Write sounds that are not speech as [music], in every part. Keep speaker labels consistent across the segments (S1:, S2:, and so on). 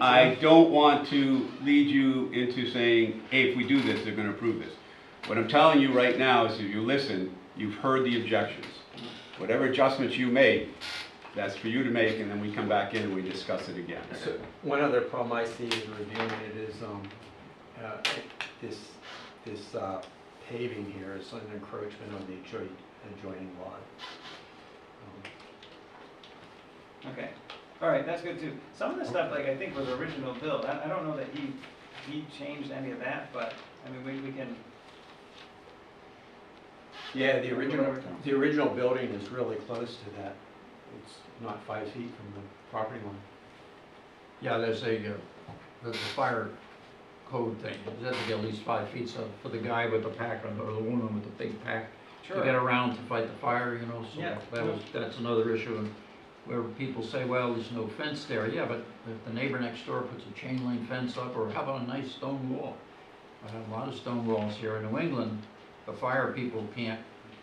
S1: I don't want to lead you into saying, hey, if we do this, they're gonna approve this. What I'm telling you right now is if you listen, you've heard the objections. Whatever adjustments you make, that's for you to make, and then we come back in and we discuss it again.
S2: So, One other problem I see in reviewing it is, um, uh, this, this uh, paving here is an encroachment on the adjoining, adjoining lot. Um,
S3: Okay, all right, that's good too. Some of the stuff, like, I think was original build, I, I don't know that he, he changed any of that, but, I mean, we, we can,
S2: Yeah, the original, the original building is really close to that. It's not five feet from the property line.
S4: Yeah, there's a, uh, there's a fire code thing, you have to get at least five feet, so for the guy with the pack, or the woman with the big pack, to get
S3: sure,
S4: around to fight the fire, you know, so
S3: Yeah.
S4: that was, that's another issue. And Where people say, well, there's no fence there, yeah, but if the neighbor next door puts a chain link fence up, or how about a nice stone wall? I have a lot of stone walls here in New England, the fire people can't,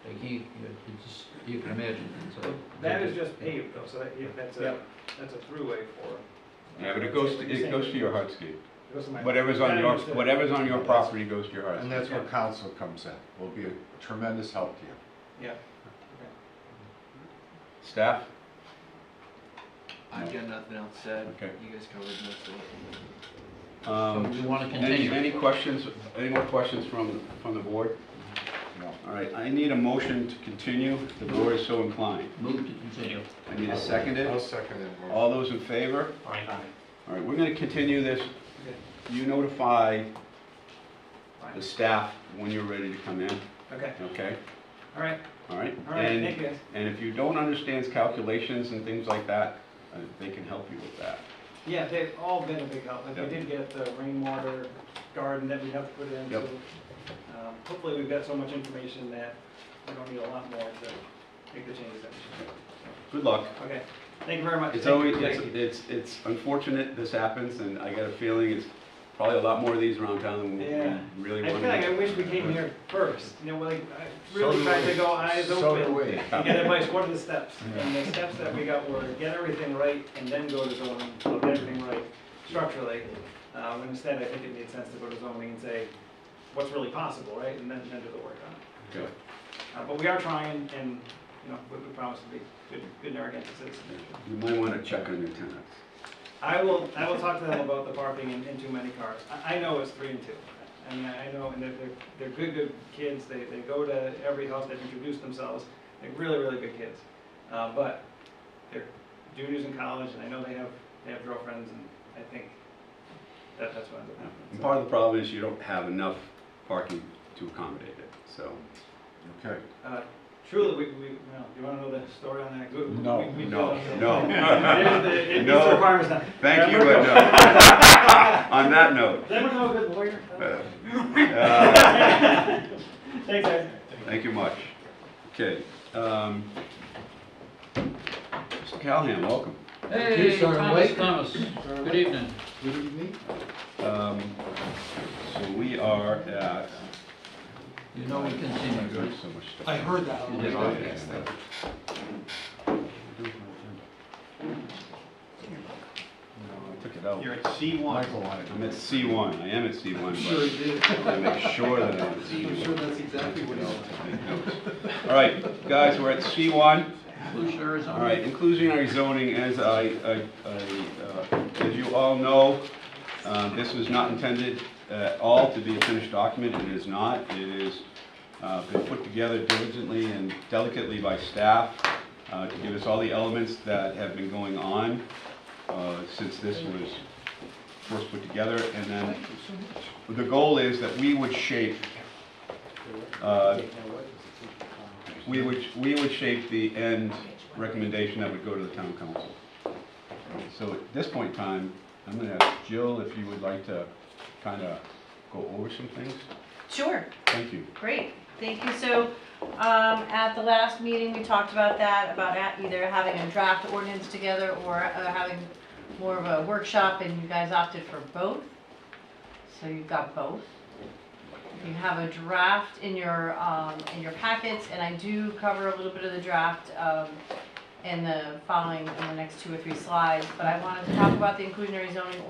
S4: they can't, you you just, you can imagine, so.
S3: that is just paved though, so that, yeah, that's a,
S2: Yep.
S3: that's a throughway for.
S1: Yeah, but it goes, to- it goes to your heart's gate.
S3: It goes to my-
S1: Whatever's on
S3: I
S1: your,
S3: understood.
S1: whatever's on your property goes to your heart's
S5: And
S1: gate.
S5: that's where council comes in, will be a tremendous help to you.
S3: Yeah,
S1: Staff?
S6: I've got nothing else said.
S1: Okay.
S6: You guys covered most of it.
S4: So
S1: Um,
S4: we wanna
S1: Any,
S4: continue.
S1: any questions, any more questions from, from the board?
S5: No.
S1: All right, I need a motion to continue, if the board is so inclined.
S4: Move to continue.
S1: I need a seconded.
S5: I'll second it. Mark.
S1: All those in favor?
S2: Aye.
S1: All right, we're gonna continue this. You notify the
S3: fine,
S1: staff when you're ready to come in,
S3: okay,
S1: okay?
S3: all right,
S1: All right?
S3: all right,
S1: And-
S3: thank you guys.
S1: And if you don't understand calculations and things like that, uh, they can help you with that.
S3: Yeah, they've all been a big help, like, we
S1: Yep.
S3: did get the rainwater garden that we have to put in, so,
S1: Yep.
S3: um, hopefully we've got so much information that we're gonna need a lot more to make the changes that we should
S1: Good luck.
S3: do. Okay, thank you very much.
S1: It's
S3: Thank
S1: always,
S3: you.
S1: it's,
S3: Thank you.
S1: it's, it's unfortunate this happens, and I got a feeling it's probably a lot more of these around town than we
S3: Yeah.
S1: we really
S3: I
S1: want.
S3: feel like I wish we came here first, you know, like, I really
S5: So
S3: tried
S5: do
S3: to go
S5: we.
S3: eyes
S5: So do
S3: open.
S5: we.
S3: And get advice, what are the steps? And the steps that we got were, get everything right, and then go to zoning, so get everything right structurally. Um, and instead, I think it made sense to go to zoning and say, what's really possible, right, and then, then do the work on it.
S1: Okay.
S3: Uh, but we are trying, and, you know, we, we promise to be good, good Narragansett citizens.
S1: You might want to check on your tenants.
S3: I will, I will talk to them about the parking and, and too many cars. I, I know it's three and two. I mean, I I know, and they're, they're, they're good, good kids, they, they go to every house, they've introduced themselves, they're really, really good kids. Uh, but they're juniors in college, and I know they have, they have girlfriends, and I think that, that's what ends up
S1: And
S3: happening.
S1: part of the problem is you don't have enough parking to accommodate it, so.
S5: Okay.
S3: Uh, Truly, we, we, you know, you wanna know the story on that? Good-
S5: No,
S3: we- we-
S5: no,
S1: No.
S3: [laughs] There's the- It meets
S1: No.
S3: the requirements now.
S1: Thank you,
S3: Remember-
S1: but no. On that note,
S3: Does anyone know a good lawyer?
S1: uh,
S3: Thanks, guys.
S1: thank you much. Okay. um, Mr. Callahan, welcome.
S4: Hey,
S5: Sergeant
S4: Thomas,
S5: Blake.
S4: Thomas, good evening.
S5: Good evening.
S1: Um, So we are at,
S4: You know we
S1: I'm
S4: continue.
S1: doing so much stuff.
S2: heard that.
S4: You did all
S1: Yeah,
S4: right.
S1: yeah, yeah. No, I took it out.
S2: at C
S5: Michael wanted.
S1: I'm at C1, I am at
S2: Sure
S1: C1,
S2: you did.
S1: but I want to make sure that I'm at
S2: I'm
S1: C1.
S2: sure that's exactly what he wanted.
S1: Make notes. All right, guys, we're at C1.
S4: Lucia, Arizona.
S1: All right, inclusionary zoning, as I, I- I, uh, as you all know, uh, this was not intended at all to be a finished document, it is not. It is, uh, been put together diligently and delicately by staff uh, to give us all the elements that have been going on uh, since this was first put together. And then, the goal is that we would shape uh, we would, we would shape the end recommendation that would go to the town council. So at this point in time, I'm gonna ask Jill if you would like to kind of go over some things.
S7: Sure,
S1: Thank you.
S7: great, thank you. So, um, at the last meeting, we talked about that, about at- either having a draft ordinance together or uh, having more of a workshop, and you guys opted for both. So you've got both. You have a draft in your, um, in your packets, and I do cover a little bit of the draft, um, in the following, in the next two or three slides, but I wanted to talk about the inclusionary zoning